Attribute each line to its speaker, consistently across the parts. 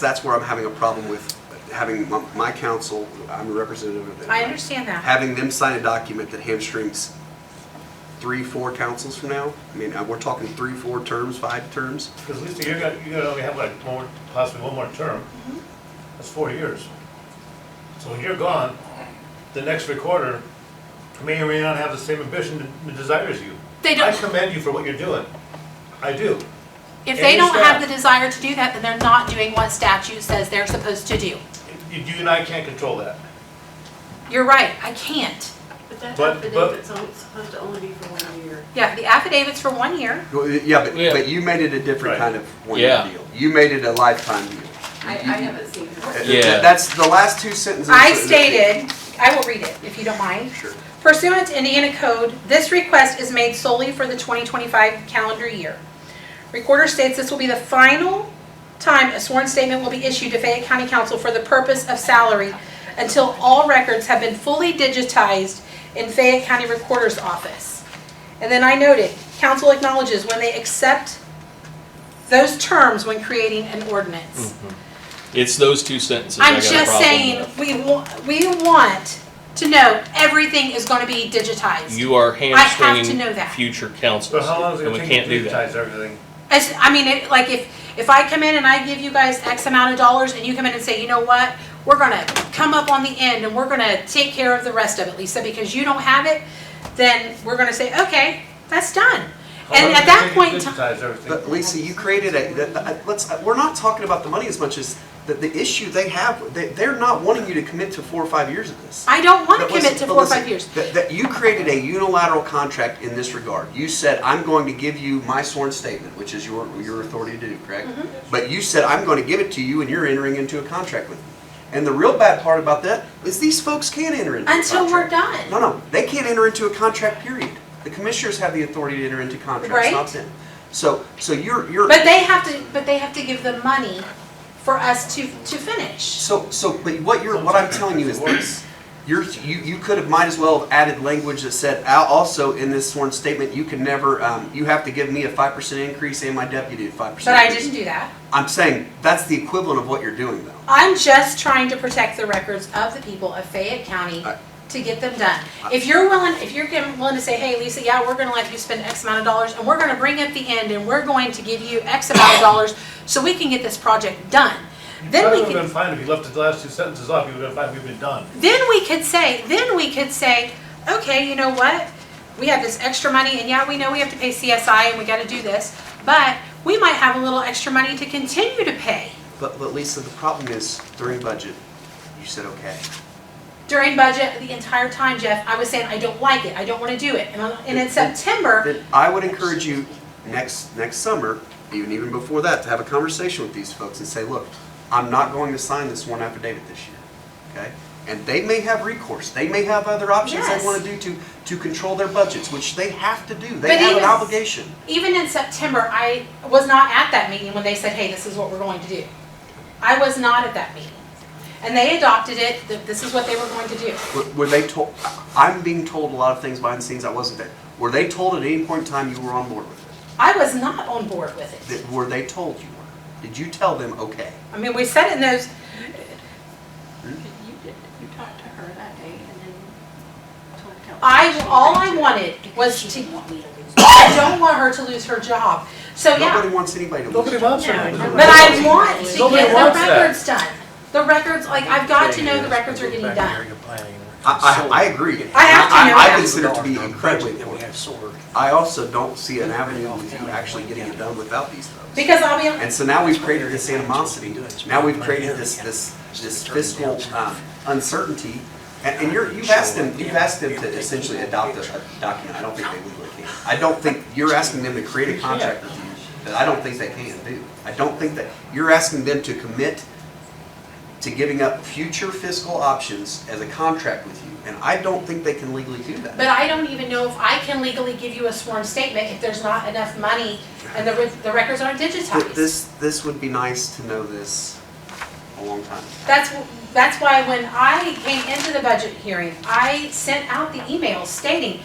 Speaker 1: That's where I'm having a problem with having my- my council, I'm a representative of them.
Speaker 2: I understand that.
Speaker 1: Having them sign a document that hamstrings three, four councils from now. I mean, uh, we're talking three, four terms, five terms.
Speaker 3: Because Lisa, you're gonna, you're gonna only have like more, possibly one more term.
Speaker 2: Mm-hmm.
Speaker 3: That's four years. So when you're gone, the next recorder may or may not have the same ambition and desire as you.
Speaker 2: They
Speaker 3: I
Speaker 2: don't-
Speaker 3: commend you for what you're doing. I do.
Speaker 2: If
Speaker 3: And
Speaker 2: they
Speaker 3: your
Speaker 2: don't have the
Speaker 3: staff.
Speaker 2: desire to do that, then they're not doing what statute says they're supposed to do.
Speaker 3: You you and I can't control that.
Speaker 2: You're right, I can't.
Speaker 4: But that
Speaker 3: But- but-
Speaker 4: affidavit's only- supposed to only be for one year.
Speaker 2: Yeah, the affidavit's for one year.
Speaker 1: Well, Yeah, but,
Speaker 5: Yeah.
Speaker 1: but you made it a different
Speaker 3: Right.
Speaker 1: kind of one-year
Speaker 5: Yeah.
Speaker 1: deal. You made it a lifetime deal.
Speaker 4: I, I haven't seen
Speaker 1: Uh,
Speaker 4: her.
Speaker 1: th-
Speaker 5: Yeah.
Speaker 1: That's the last two sentences.
Speaker 2: I stated, I will read it if you don't mind.
Speaker 1: Sure.
Speaker 2: Pursuant to Indiana Code, this request is made solely for the 2025 calendar year. Recorder states this will be the final time a sworn statement will be issued to Fayette County Council for the purpose of salary until all records have been fully digitized in Fayette County Recorder's Office. And then I noted, council acknowledges when they accept those terms when creating an ordinance.
Speaker 5: Mm-hmm. It's those two sentences. Hmm. I
Speaker 2: I'm
Speaker 5: got a
Speaker 2: just
Speaker 5: problem
Speaker 2: saying,
Speaker 5: with.
Speaker 2: we wa, we want to know everything is gonna be digitized.
Speaker 5: You are
Speaker 2: to know
Speaker 5: hamstringing
Speaker 2: that.
Speaker 5: future councils.
Speaker 3: So how long is it
Speaker 5: and
Speaker 3: gonna
Speaker 5: we
Speaker 3: take
Speaker 5: can't
Speaker 3: you
Speaker 5: do
Speaker 3: to
Speaker 5: that.
Speaker 3: digitize everything?
Speaker 2: As, I mean, it, like, if, if I come in and I give you guys X amount of dollars, and you come in and say, you know what? We're gonna come up on the end, and we're gonna take care of the rest of it, Lisa, because you don't have it, then we're gonna say, okay, that's done.
Speaker 3: How long
Speaker 2: And at
Speaker 3: does it
Speaker 2: that
Speaker 3: take you to
Speaker 2: point, in ti-
Speaker 3: Digitize everything.
Speaker 1: But Lisa, you created a, that- that- let's, uh, we're not talking about the money as much as the, the issue they have, they, they're not wanting you to commit to four or five years of this.
Speaker 2: I don't wanna
Speaker 1: But listen-
Speaker 2: commit to
Speaker 1: but
Speaker 2: four or
Speaker 1: listen,
Speaker 2: five years.
Speaker 1: That, that you created a unilateral contract in this regard. You said, I'm going to give you my sworn statement, which is your, your authority to do, correct?
Speaker 2: Mm-hmm.
Speaker 1: But you said, I'm going to give it to you and you're entering into a contract with me. And the real bad part about that is these folks can't enter into a contract.
Speaker 2: Until we're
Speaker 1: No,
Speaker 2: done.
Speaker 1: no, they can't enter into a contract, period. The commissioners have the authority to enter into contracts, not
Speaker 2: Right.
Speaker 1: them. So, so you're, you're.
Speaker 2: But they have to, but they have to give the money for us to, to finish.
Speaker 1: So, so, but what you're, what I'm telling you is this, you're, you, you could have, might as well have added language that said, "Al- also in this sworn statement, you can never, um, you have to give me a five percent increase and my deputy a five percent.
Speaker 2: But I didn't do that.
Speaker 1: I'm saying, that's the equivalent of what you're doing though.
Speaker 2: I'm just trying to protect the records of the people of Fayette County
Speaker 1: I-
Speaker 2: to get them done. If you're willing, if you're giving- willing to say, hey, Lisa, yeah, we're gonna let you spend X amount of dollars, and we're gonna bring up the end, and we're going to give you X amount of dollars, so we can get this project done. Then
Speaker 3: Probably
Speaker 2: we
Speaker 3: would've been
Speaker 2: could,
Speaker 3: fine if you left the last two sentences off, you would've been fine, we've been done.
Speaker 2: then we could say, then we could say, okay, you know what? We have this extra money, and yeah, we know we have to pay CSI, and we gotta do this, but we might have a little extra money to continue to pay
Speaker 1: But, but Lisa, the problem is during budget, you said, okay.
Speaker 2: during budget the entire time, Jeff, I was saying, I don't like it, I don't wanna do it. And, I'm- and in September,
Speaker 1: Then I would encourage you next, next summer, even, even before that, to have a conversation with these folks and say, look, I'm not going to sign this one affidavit this year, okay? And they may have recourse, they may have other options they
Speaker 2: Yes.
Speaker 1: wanna do to, to control their budgets, which they have to do, they
Speaker 2: But
Speaker 1: have an
Speaker 2: even-
Speaker 1: obligation.
Speaker 2: even in September, I was not at that meeting when they said, hey, this is what we're going to do. I was not at that meeting. And they adopted it, that this is what they were going to do.
Speaker 1: Were- Were they told, I'm being told a lot of things behind the scenes, I wasn't there. Were they told at any point in time you were on board with it?
Speaker 2: I was not on board with it.
Speaker 1: That, were they told you were? Did you tell them, okay?
Speaker 2: I mean, we said in those,
Speaker 4: You did, you talked to her that day and then told council.
Speaker 2: I, all I wanted was to, I don't want her to lose her job. So, yeah.
Speaker 1: Nobody wants anybody to lose.
Speaker 3: Nobody
Speaker 1: their
Speaker 3: wants her.
Speaker 4: No,
Speaker 3: to-
Speaker 4: nobody
Speaker 2: But I want to
Speaker 3: Nobody
Speaker 2: get the
Speaker 3: wants that.
Speaker 2: records done. The records, like, I've got to know the records are getting done.
Speaker 1: I, I, I agree.
Speaker 2: I have to know
Speaker 1: I
Speaker 2: that.
Speaker 1: consider it to be incredibly
Speaker 6: That
Speaker 1: important.
Speaker 6: we have solar.
Speaker 1: I also don't see an avenue of you actually getting it done without these folks.
Speaker 2: Because I'll be,
Speaker 1: And so now we've created this animosity, now we've created this, this, this fiscal um, uncertainty. And, and you're, you've asked them, you've asked them to essentially adopt a, a document, I don't think they legally can. I don't think, you're asking them to create a contract with you that I don't think they can do. I don't think that, you're asking them to commit to giving up future fiscal options as a contract with you, and I don't think they can legally do that.
Speaker 2: but I don't even know if I can legally give you a sworn statement if there's not enough money and the, re- the records aren't
Speaker 1: Th-
Speaker 2: digitized.
Speaker 1: This, this would be nice to know this a long time.
Speaker 2: That's, wh- that's why when I came into the budget hearing, I sent out the email stating,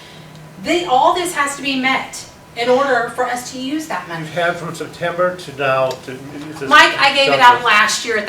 Speaker 2: the, all this has to be met in order for us to use that money.
Speaker 3: You've had from September to now to.
Speaker 2: Mike, I gave it out last year at